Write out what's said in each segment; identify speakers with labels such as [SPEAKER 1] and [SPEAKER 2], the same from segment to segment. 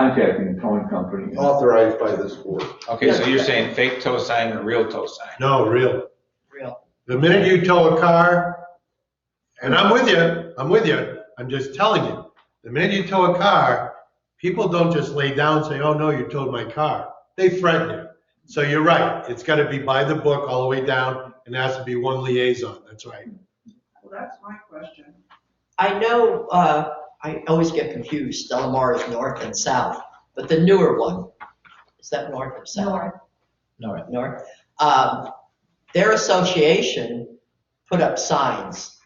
[SPEAKER 1] contacting the towing company.
[SPEAKER 2] authorized by this board.
[SPEAKER 3] Okay, so you're saying fake tow sign and real tow sign?
[SPEAKER 4] No, real.
[SPEAKER 5] Real.
[SPEAKER 4] The minute you tow a car, and I'm with you, I'm with you, I'm just telling you, the minute you tow a car, people don't just lay down and say, oh, no, you towed my car. They threaten you. So you're right, it's gotta be by the book all the way down, and there has to be one liaison, that's right.
[SPEAKER 6] Well, that's my question.
[SPEAKER 5] I know, uh, I always get confused, Delamar is north and south, but the newer one, is that north or south?
[SPEAKER 7] North.
[SPEAKER 5] North, north. Um, Their association put up signs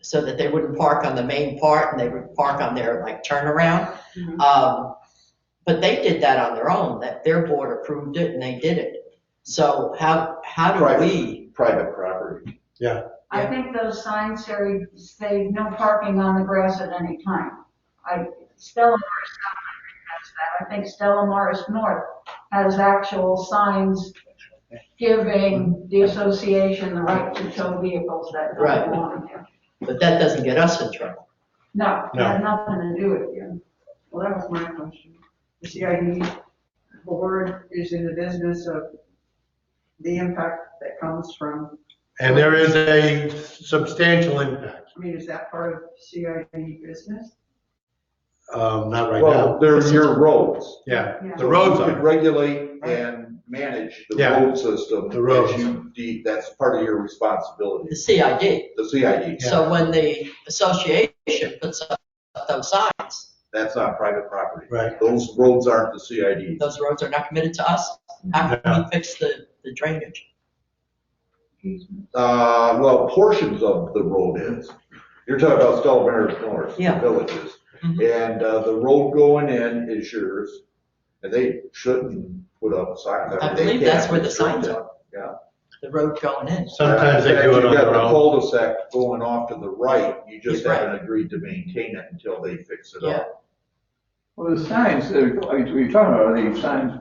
[SPEAKER 5] so that they wouldn't park on the main part and they would park on their like turnaround.
[SPEAKER 6] Mhm.
[SPEAKER 5] Um, But they did that on their own, that their board approved it and they did it. So how, how do
[SPEAKER 2] Right.
[SPEAKER 5] we?
[SPEAKER 2] Private property.
[SPEAKER 7] I think those signs say, say no parking on the grass at any time. I, Stella Maris has that. I think Stella Maris North has actual signs giving the association the right to tow vehicles that
[SPEAKER 5] Right.
[SPEAKER 7] don't belong there.
[SPEAKER 5] But that doesn't get us in trouble.
[SPEAKER 7] No, it had nothing to do with you.
[SPEAKER 6] Well, that was my question. The CID board is in the business of the impact that comes from,
[SPEAKER 4] And there is a substantial impact,
[SPEAKER 6] I mean, is that part of CID business?
[SPEAKER 4] um, not right
[SPEAKER 2] Well,
[SPEAKER 4] now.
[SPEAKER 2] they're your roads.
[SPEAKER 4] Yeah,
[SPEAKER 7] Yeah.
[SPEAKER 4] the roads
[SPEAKER 2] You
[SPEAKER 4] are.
[SPEAKER 2] could regulate and manage the
[SPEAKER 4] Yeah.
[SPEAKER 2] road system.
[SPEAKER 4] The roads.
[SPEAKER 2] as you de- That's part of your responsibility,
[SPEAKER 5] The CID,
[SPEAKER 2] the CID.
[SPEAKER 5] So when the association puts up those signs,
[SPEAKER 2] That's not private property.
[SPEAKER 4] Right.
[SPEAKER 2] Those roads aren't the CID.
[SPEAKER 5] those roads are not committed to us, how can we fix the, the drainage?
[SPEAKER 2] Uh, well, portions of the road is. You're talking about Stella Maris North, the
[SPEAKER 5] Yeah.
[SPEAKER 2] villages.
[SPEAKER 5] Mhm.
[SPEAKER 2] And, uh, the road going in is yours, and they shouldn't put up signs.
[SPEAKER 5] I
[SPEAKER 2] They
[SPEAKER 5] believe that's
[SPEAKER 2] can't
[SPEAKER 5] where the
[SPEAKER 2] restrict
[SPEAKER 5] signs
[SPEAKER 2] it.
[SPEAKER 5] are. The road going in,
[SPEAKER 4] Sometimes they do it on
[SPEAKER 2] You've got
[SPEAKER 4] their
[SPEAKER 2] the
[SPEAKER 4] own.
[SPEAKER 2] cul-de-sac going off to the right, you just
[SPEAKER 5] Right.
[SPEAKER 2] haven't agreed to maintain it until they fix it up.
[SPEAKER 1] Well, the signs, that are- are you- you're talking about, are these signs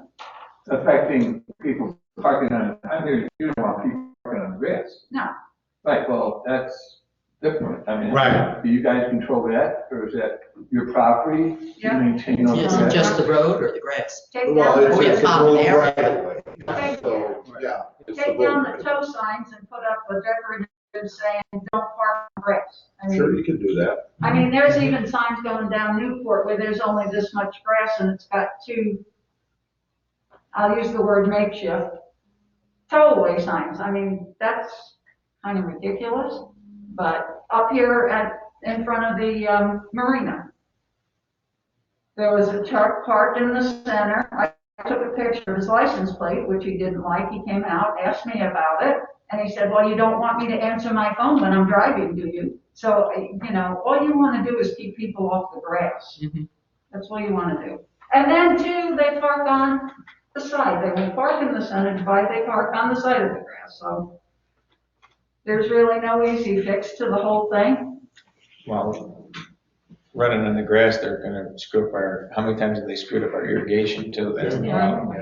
[SPEAKER 1] affecting people parking on, I mean, you don't want people parking on grass.
[SPEAKER 7] No.
[SPEAKER 1] Right, well, that's different. I mean,
[SPEAKER 4] Right.
[SPEAKER 1] Do you guys control that, or is that your property? You
[SPEAKER 6] Yeah.
[SPEAKER 1] Maintain all
[SPEAKER 5] is it
[SPEAKER 1] that?
[SPEAKER 5] just the road or the grass?
[SPEAKER 7] Take
[SPEAKER 2] Well,
[SPEAKER 7] down,
[SPEAKER 2] it's,
[SPEAKER 5] Oh, yeah,
[SPEAKER 2] it's the
[SPEAKER 5] common
[SPEAKER 2] road
[SPEAKER 5] area.
[SPEAKER 2] right of way.
[SPEAKER 7] Okay.
[SPEAKER 2] So, yeah. it's the
[SPEAKER 7] take
[SPEAKER 2] road
[SPEAKER 7] down
[SPEAKER 2] right
[SPEAKER 7] the
[SPEAKER 2] of
[SPEAKER 7] tow signs and put up a decorative saying, don't park on grass. I
[SPEAKER 2] way.
[SPEAKER 7] mean,
[SPEAKER 2] Sure, you can do that.
[SPEAKER 7] I mean, there's even signs going down Newport where there's only this much grass and it's got two, I'll use the word makeshift, throwaway signs. I mean, that's kind of ridiculous. But up here at, in front of the um, marina, there was a truck parked in the center. I took a picture of his license plate, which he didn't like. He came out, asked me about it. And he said, well, you don't want me to answer my phone when I'm driving, do you? So, you know, all you want to do is keep people off the grass.
[SPEAKER 5] Mhm.
[SPEAKER 7] That's all you want to do. And then too, they park on the side. They won't park in the center divide, they park on the side of the grass, so. There's really no easy fix to the whole thing.
[SPEAKER 3] Well, running in the grass, they're gonna screw up our, how many times have they screwed up our irrigation too? That's the problem.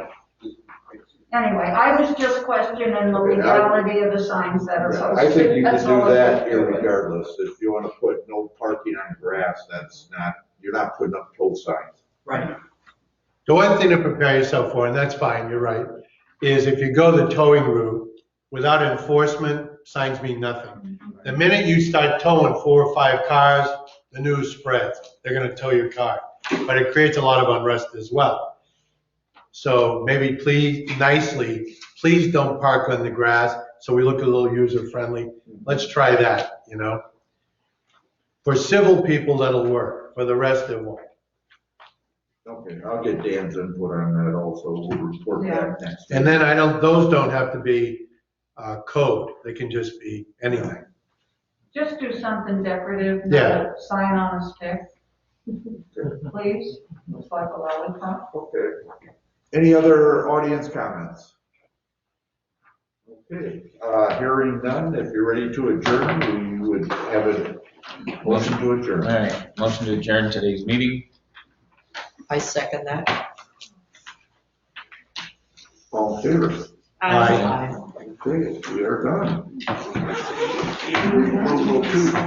[SPEAKER 7] Anyway, I was just questioning the legality of the signs that are
[SPEAKER 2] Yeah,
[SPEAKER 7] posted.
[SPEAKER 2] I think you can
[SPEAKER 7] That's all
[SPEAKER 2] do
[SPEAKER 7] I
[SPEAKER 2] that
[SPEAKER 7] think.
[SPEAKER 2] regardless. If you wanna put no parking on grass, that's not, you're not putting up tow signs.
[SPEAKER 5] Right.
[SPEAKER 4] The one thing to prepare yourself for, and that's fine, you're right, is if you go the towing route, without enforcement, signs mean nothing. The minute you start towing four or five cars, the news spreads, they're gonna tow your car. But it creates a lot of unrest as well. So maybe please, nicely, please don't park on the grass, so we look a little user-friendly. Let's try that, you know? For civil people, that'll work, for the rest, it won't.
[SPEAKER 2] Okay, I'll get Dan's input on that also. We'll report back next.
[SPEAKER 4] And then I don't, those don't have to be uh, code, they can just be anything.
[SPEAKER 7] Just do something decorative,
[SPEAKER 4] Yeah.
[SPEAKER 7] not a sign on a stick. Please, looks like a lollipop.
[SPEAKER 2] Okay. Any other audience comments? Okay, uh, hearing none, if you're ready to adjourn, we would have a motion to
[SPEAKER 3] All
[SPEAKER 2] adjourn.
[SPEAKER 3] right, motion to adjourn today's meeting.
[SPEAKER 5] I second that.
[SPEAKER 2] All in favor?
[SPEAKER 5] uh,
[SPEAKER 4] Aye.
[SPEAKER 2] Okay, we are done. 8:02.